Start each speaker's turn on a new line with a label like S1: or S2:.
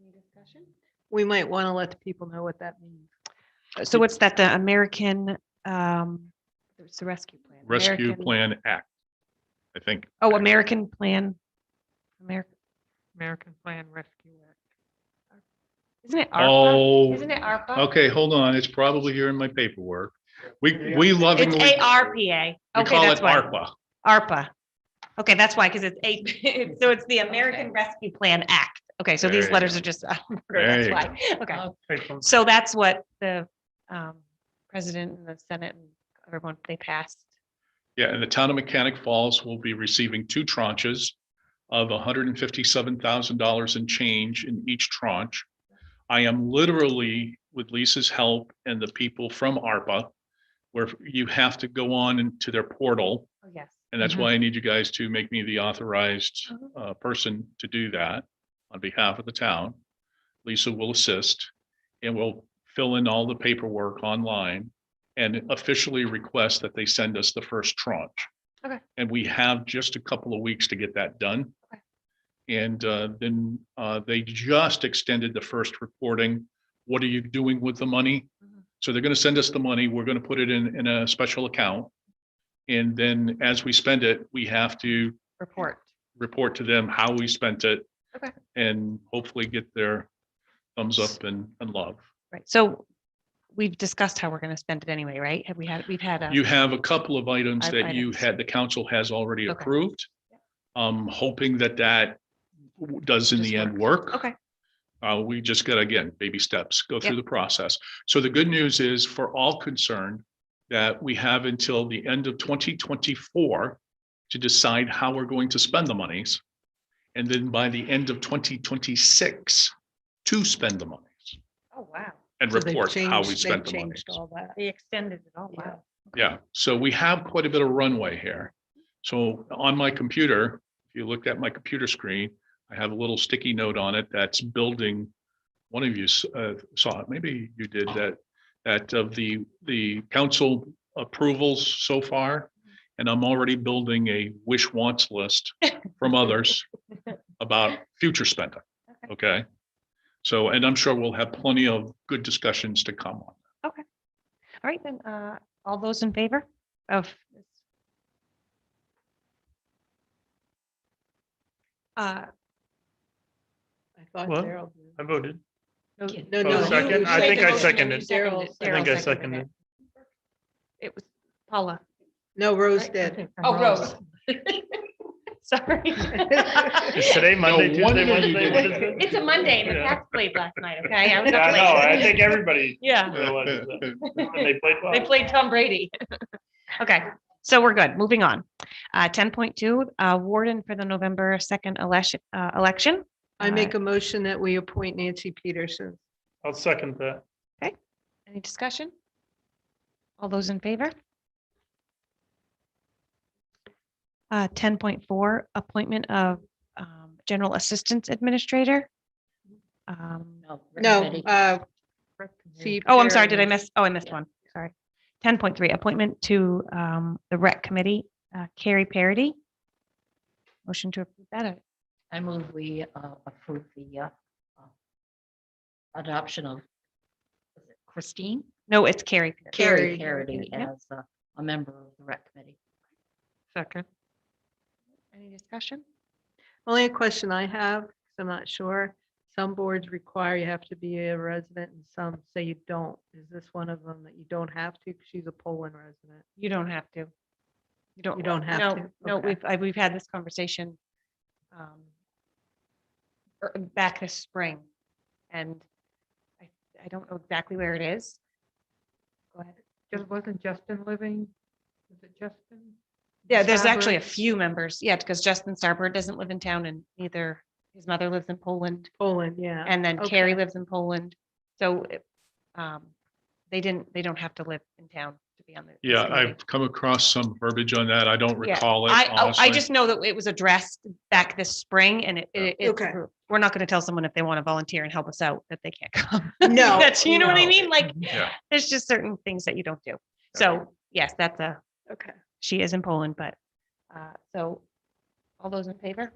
S1: Any discussion?
S2: We might want to let the people know what that means.
S3: So what's that, the American, um, it's the rescue plan?
S4: Rescue
S3: American-
S4: Plan Act. I think
S3: Oh, American Plan. American,
S5: American Plan Rescue Act.
S3: isn't it ARPA?
S4: Oh,
S3: Isn't it ARPA?
S4: okay, hold on. It's probably here in my paperwork. We, we
S3: It's
S4: lovingly.
S3: ARPA.
S4: We
S3: Okay,
S4: call it
S3: that's why.
S4: ARPA.
S3: ARPA. Okay, that's why, because it's a, so it's the American Rescue Plan Act. Okay, so these
S4: There
S3: letters
S4: you
S3: are just,
S4: There
S3: that's
S4: you
S3: why. Okay. So that's what the um, president and the Senate and everyone, they passed.
S4: Yeah, and the town of Mechanic Falls will be receiving two tranches of hundred and fifty-seven thousand dollars in change in each tranche. I am literally, with Lisa's help and the people from ARPA, where you have to go on into their portal.
S3: Oh, yes.
S4: And that's
S5: Mhm.
S4: why I need you guys to make me the authorized
S3: Mhm.
S4: uh, person to do that on behalf of the town. Lisa will assist and will fill in all the paperwork online and officially request that they send us the first tranche.
S3: Okay.
S4: And we have just a couple of weeks to get that done.
S3: Okay.
S4: And uh, then uh, they just extended the first reporting. What are you doing with the money?
S3: Mhm.
S4: So they're going to send us the money. We're going to put it in, in a special account. And then as we spend it, we have to
S3: Report.
S4: report to them how we spent it.
S3: Okay.
S4: And hopefully get their thumbs up and, and love.
S3: Right. So we've discussed how we're going to spend it anyway, right? Have we had, we've had a.
S4: You have a couple of items
S3: Five
S4: that you
S3: items.
S4: had, the council has already
S3: Okay.
S4: approved. Um, hoping that that w- does in
S3: Just
S4: the end work.
S3: Okay.
S4: Uh, we just got, again, baby steps, go through
S3: Yep.
S4: the process. So the good news is for all concerned that we have until the end of twenty twenty-four to decide how we're going to spend the monies. And then by the end of twenty twenty-six to spend the monies
S3: Oh, wow.
S4: and
S2: So they've
S4: report how
S2: changed-
S4: we
S2: they've
S4: spent the monies.
S2: changed All that.
S3: They extended it all.
S2: Yeah.
S3: Wow.
S4: Yeah, so we have quite a bit of runway here. So on my computer, if you looked at my computer screen, I have a little sticky note on it that's building. One of you s- uh, saw it, maybe you did that, that of the, the council approvals so far. And I'm already building a wish wants list from others about future spending, okay? So, and I'm sure we'll have plenty of good discussions to come on.
S3: All right, then, uh, all those in favor of? this? Uh,
S2: I thought
S6: Well,
S2: Daryl did.
S6: I voted.
S3: no,
S2: No,
S6: Oh,
S2: no. you-
S6: second?
S2: you
S6: I think I
S2: seconded.
S6: seconded.
S2: Daryl
S3: Daryl
S6: I think I
S3: seconded
S6: seconded.
S3: It was Paula.
S2: No, Rose
S3: right?
S2: did.
S3: Oh, Rose. Sorry.
S6: Is today
S4: No
S6: Monday, Tuesday,
S4: wonder you
S6: Wednesday? What
S4: did
S6: is it?
S3: It's a Monday and the
S6: Yeah.
S3: Cats played last night, okay? I was
S6: Yeah,
S3: up
S6: I know. I
S3: late.
S6: think Oh. everybody
S3: Yeah,
S6: realizes that. And They played
S3: they
S6: well.
S3: played Tom Brady. Okay, so we're good. Moving on. Uh, ten point two, uh, warden for the November second election, uh, election.
S2: I
S3: Uh,
S2: make a motion that we appoint Nancy Peterson.
S6: I'll second that.
S3: Uh, Any discussion? All those in favor? Uh, ten point four, appointment of, um, general assistance administrator. Um,
S2: No, uh, see.
S3: oh, I'm sorry, did I
S2: Perry.
S3: miss? Oh, I missed one, sorry. Ten point three, appointment to, um, the rec committee, uh, Carrie Parity. Motion to approve that. uh,
S7: I move we uh, approve the uh, uh, adoption of was it Christine
S3: No, it's Carrie. Parity.
S2: Carrie.
S7: Carity
S3: Yep.
S7: as uh, a member of the rec committee.
S5: Second.
S3: Any discussion?
S2: Only a question I have, 'cause I'm not sure. Some boards require you have to be a resident and some say you don't. Is this one of them that you don't have to? 'Cause She's a Poland resident.
S3: You don't have to. You don't.
S2: You don't have
S3: no,
S2: to?
S3: No,
S2: Okay.
S3: we've, I- we've had this conversation um, er, back this spring, and I, I don't know exactly where it is. Go ahead.
S5: Just wasn't Justin living? Is it Justin?
S3: Yeah, there's actually a
S5: Starbird?
S3: few members, yeah, because Justin Starbird doesn't live in town and neither, his mother lives in Poland,
S2: Poland, yeah.
S3: and then Carrie
S2: Oh, okay.
S3: lives in Poland. So it, um, they didn't, they don't have to live in town to be on the. this
S4: Yeah,
S3: committee.
S4: I've come across some verbiage on that. I don't
S3: Yeah,
S4: recall it.
S3: I, oh, I
S4: honestly.
S3: just know that it was addressed back this spring and it, it, it's,
S2: Okay.
S3: we're not gonna tell someone if they wanna volunteer and help us out that they can't come.
S2: No,
S3: That's, you know what I
S2: no.
S3: mean? Like,
S4: Yeah.
S3: there's just certain things that you don't do. So, yes, that's a,
S2: Okay.
S3: she is in Poland, but, uh, so, all those in favor?